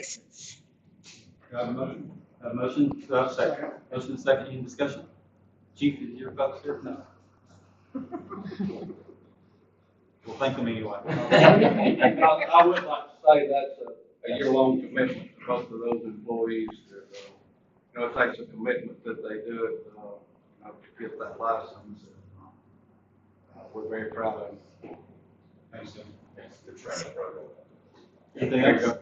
license. Do I have a motion? A motion, do I have a second? Motion and second, any discussion? Chief, is your vote here? No. Well, thank them anyway. I, I would like to say that's a, a year-long commitment to both of those employees. that, uh, You know, it takes a commitment that they do it, uh, you know, to get that license. Uh, We're very proud of them. Thanks, Jim. It's the training program. Anything else?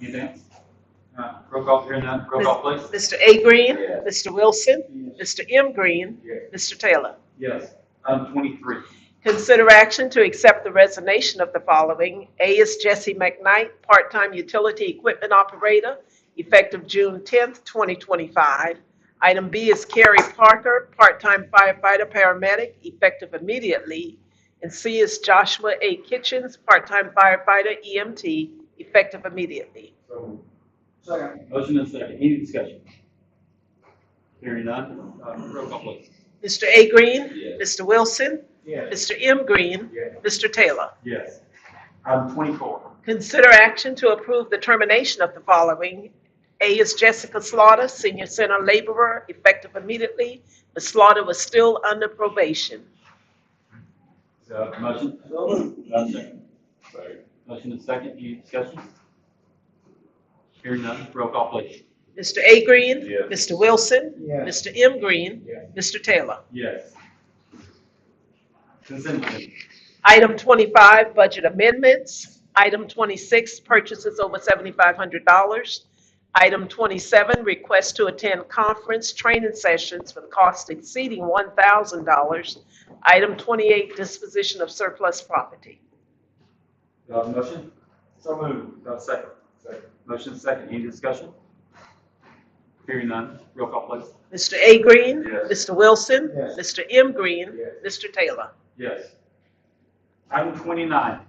Anything else? All right, roll call, here none, roll call please. Mr. A. Green, Yes. Mr. Wilson, Mr. M. Green, Yes. Mr. Taylor. Yes, item twenty-three. Consider action to accept the resignation of the following. A is Jesse McKnight, part-time utility equipment operator, effective June 10th, 2025. Item B is Carrie Parker, part-time firefighter paramedic, effective immediately. And C is Joshua A. Kitchens, part-time firefighter EMT, effective immediately. Motion and second, any discussion? Hearing none, uh, roll call please. Mr. A. Green, Yes. Mr. Wilson, Yes. Mr. M. Green, Yes. Mr. Taylor. Yes. Item twenty-four. Consider action to approve the termination of the following. A is Jessica Slaughter, senior center laborer, effective immediately. Ms. Slaughter was still under probation. So, motion? Do I have a second? Motion and second, any discussion? Hearing none, roll call please. Mr. A. Green? Yes. Mr. Wilson? Mr. M. Green? Yes. Mr. Taylor? Yes. Consent agenda. Item 25, budget amendments. Item 26, purchases over $7,500. Item 27, request to attend conference training sessions with cost exceeding $1,000. Item 28, disposition of surplus property. Do I have a motion? So moved. Do I have a second? Second. Motion second, any discussion? Hearing none, roll call please. Mr. A. Green? Yes. Mr. Wilson? Yes. Mr. M. Green? Mr. Taylor? Yes. Item twenty-nine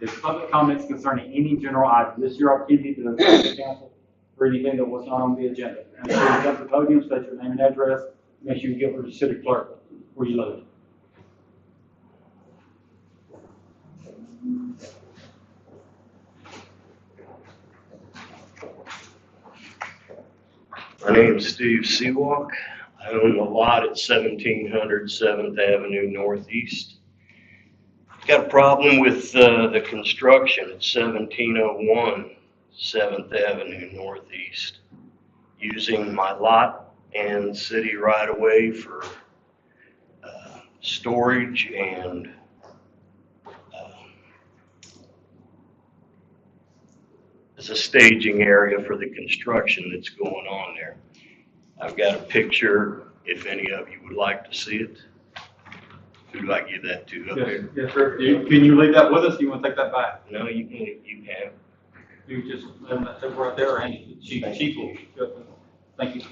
is public comments concerning any general item. This is your opportunity to address the council for anything that was not on the agenda. And so you come to the podium, state your name and address, make sure you give her to city clerk before you leave. My name is Steve Seawalk. I own the lot at 1700 Seventh Avenue Northeast. Got a problem with uh, the construction at 1701 Seventh Avenue Northeast. Using my lot and city right of way for uh, storage and um, as a staging area for the construction that's going on there. I've got a picture, if any of you would like to see it. Who do I give that to up Yes, there? yes, sir. Do you- Can you leave that with us? Do you want to take that back? No, you can, you can. You just, let them, they right there, and she, she will. Thank you.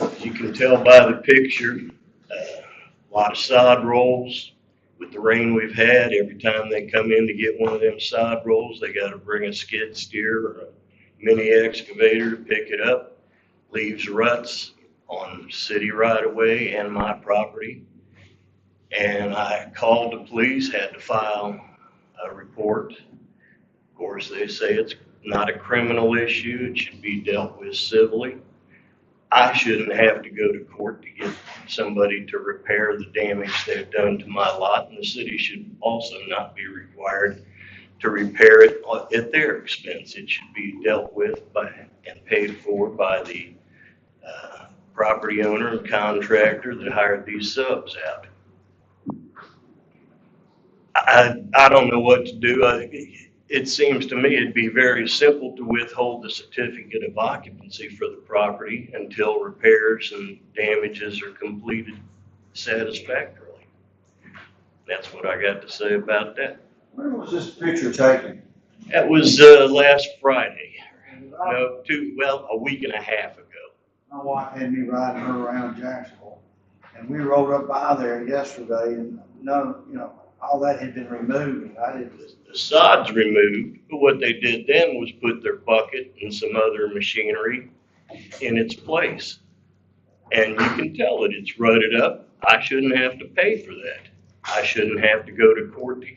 As you can tell by the picture, uh, a lot of sod rolls. With the rain we've had, every time they come in to get one of them sod rolls, they gotta bring a skid steer or a mini excavator to pick it up. Leaves ruts on city right of way and my property. And I called the police, had to file a report. Of course, they say it's not a criminal issue, it should be dealt with civilly. I shouldn't have to go to court to get somebody to repair the damage they've done to my lot, and the city should also not be required to repair it at their expense. It should be dealt with by, and paid for by the, uh, property owner and contractor that hired these subs out. I, I don't know what to do. I, it seems to me it'd be very simple to withhold the certificate of occupancy for the property until repairs and damages are completed satisfactorily. That's what I got to say about that. When was this picture taken? That was, uh, last Friday, no, two, well, a week and a half ago. My wife had me riding her around Jacksonville, and we rode up by there yesterday, and none, you know, all that had been removed, and I didn't, The sod's removed, but what they did then was put their bucket and some other machinery in its place. And you can tell that it's rutted up. I shouldn't have to pay for that. I shouldn't have to go to court to